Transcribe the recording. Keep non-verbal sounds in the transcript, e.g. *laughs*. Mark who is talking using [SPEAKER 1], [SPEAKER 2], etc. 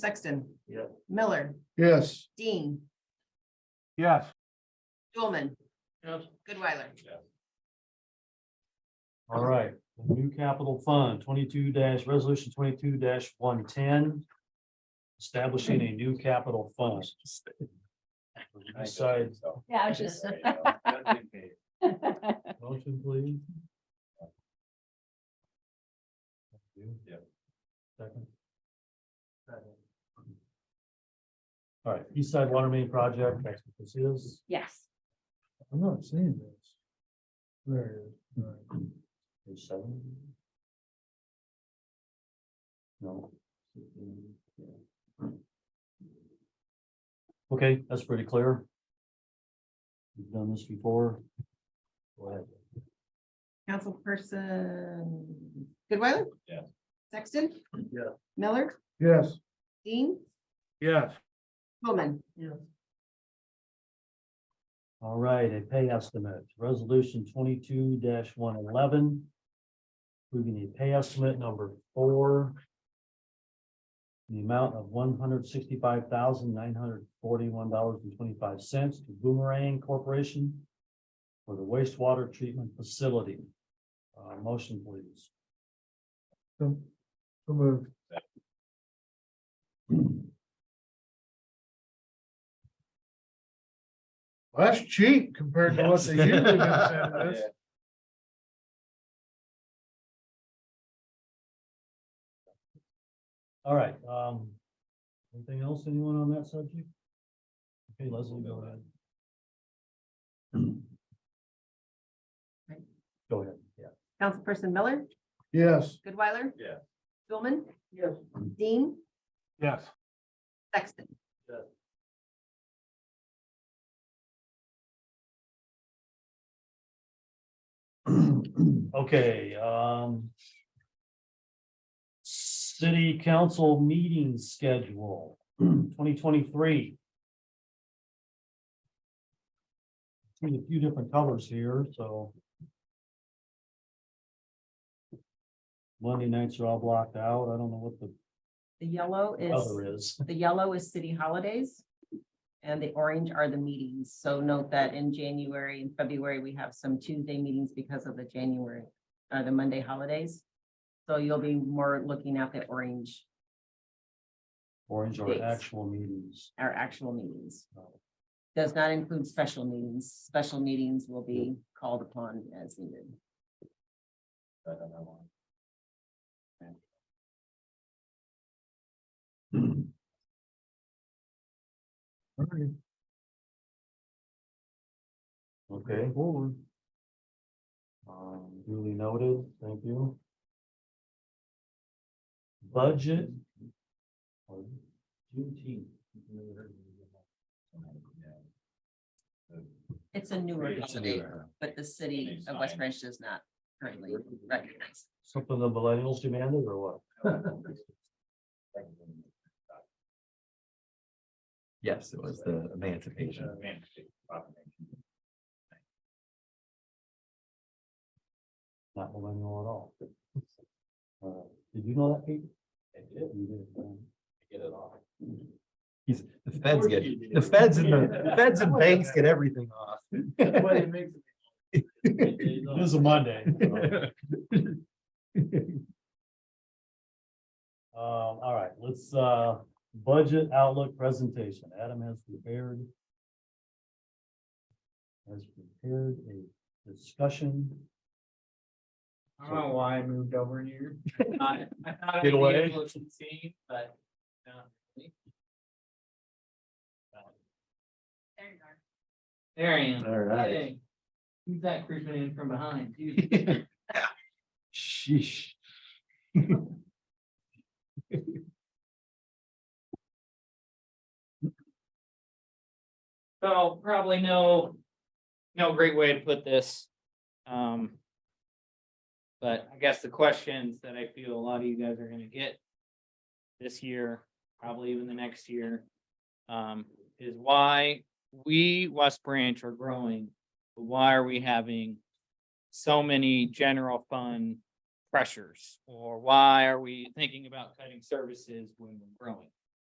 [SPEAKER 1] Sexton.
[SPEAKER 2] Yeah.
[SPEAKER 1] Miller,
[SPEAKER 3] Yes.
[SPEAKER 1] Dean,
[SPEAKER 3] Yes.
[SPEAKER 1] Dolman,
[SPEAKER 2] Yes.
[SPEAKER 1] Goodweiler.
[SPEAKER 2] All right, the new capital fund, twenty-two dash, resolution twenty-two one ten. Establishing a new capital fund. Decide,
[SPEAKER 4] Yeah, I was just.
[SPEAKER 5] *laughs*
[SPEAKER 2] motion please.
[SPEAKER 6] Yeah.
[SPEAKER 2] Second. All right, East Side Water Main Project, that's what this is.
[SPEAKER 4] Yes,
[SPEAKER 3] I'm not seeing this. There it is. All right.
[SPEAKER 2] Page seven? No. Okay, that's pretty clear. We've done this before. Go ahead.
[SPEAKER 1] Councilperson Goodweiler?
[SPEAKER 6] Yeah.
[SPEAKER 1] Sexton?
[SPEAKER 2] Yeah.
[SPEAKER 1] Miller,
[SPEAKER 3] Yes.
[SPEAKER 1] Dean,
[SPEAKER 3] Yes.
[SPEAKER 1] Dolman.
[SPEAKER 2] All right, a pay estimate, resolution twenty-two one eleven. Approving a pay estimate number four. in The amount of one hundred sixty-five thousand nine hundred forty-one dollars and twenty-five cents to Boomerang Corporation. For the wastewater treatment facility. Uh, motion please.
[SPEAKER 3] So so moved. Well, That's cheap compared to what they
[SPEAKER 2] Yes.
[SPEAKER 3] usually gonna send
[SPEAKER 5] *laughs*
[SPEAKER 3] us.
[SPEAKER 2] All right, um. Anything else, anyone on that subject? Okay, Leslie, go ahead. Go ahead, yeah.
[SPEAKER 1] Councilperson Miller,
[SPEAKER 3] Yes.
[SPEAKER 1] Goodweiler?
[SPEAKER 6] Yeah.
[SPEAKER 1] Dolman? Yes. Dean,
[SPEAKER 3] Yes.
[SPEAKER 1] Sexton.
[SPEAKER 2] Okay, um. City council meeting schedule, twenty twenty-three. See a few different colors here, so. Monday nights are all blocked out. I don't know what the
[SPEAKER 7] The yellow is,
[SPEAKER 2] other is.
[SPEAKER 7] the yellow is city holidays. And the orange are the meetings. So note that in January and February, we have some Tuesday meetings because of the January, uh, the Monday holidays. So you'll be more looking at the orange,
[SPEAKER 2] Orange are
[SPEAKER 7] Dates.
[SPEAKER 2] actual meetings.
[SPEAKER 7] our actual meetings. Does not include special meetings. Special meetings will be called upon as needed.
[SPEAKER 2] Okay. Um, duly noted, thank you. Budget. Juneteenth.
[SPEAKER 7] It's a newer holiday,
[SPEAKER 5] *laughs*
[SPEAKER 7] but the city of West
[SPEAKER 6] Sign.
[SPEAKER 7] Branch does not currently recognize.
[SPEAKER 2] Something the millennials demanded or what?
[SPEAKER 5] Yes, it was the emancipation.
[SPEAKER 2] Not millennial at all. Uh, Did you know that, Pete? I did. You did. Hmm. um,
[SPEAKER 5] He's, the feds get, the feds and the the feds
[SPEAKER 3] *laughs*
[SPEAKER 5] and banks get everything off.
[SPEAKER 2] It is a Monday. *laughs* Um, all right, let's, uh, budget outlook presentation. Adam has prepared. Has prepared a discussion.
[SPEAKER 8] I don't know why I moved over
[SPEAKER 5] *laughs*
[SPEAKER 8] here. I thought I thought I'd
[SPEAKER 5] Get
[SPEAKER 8] be
[SPEAKER 5] away.
[SPEAKER 8] able to see, but no. There you are. There I am. Hey. Who's that creeping in from behind? Dude,
[SPEAKER 5] Sheesh.
[SPEAKER 8] So probably no, no great way to put this. Um. But I guess the questions that I feel a lot of you guys are gonna get this year, probably even the next year, um, is why we, West Branch, are growing. but Why are we having so many general fund pressures? Or why are we thinking about cutting services when we're growing?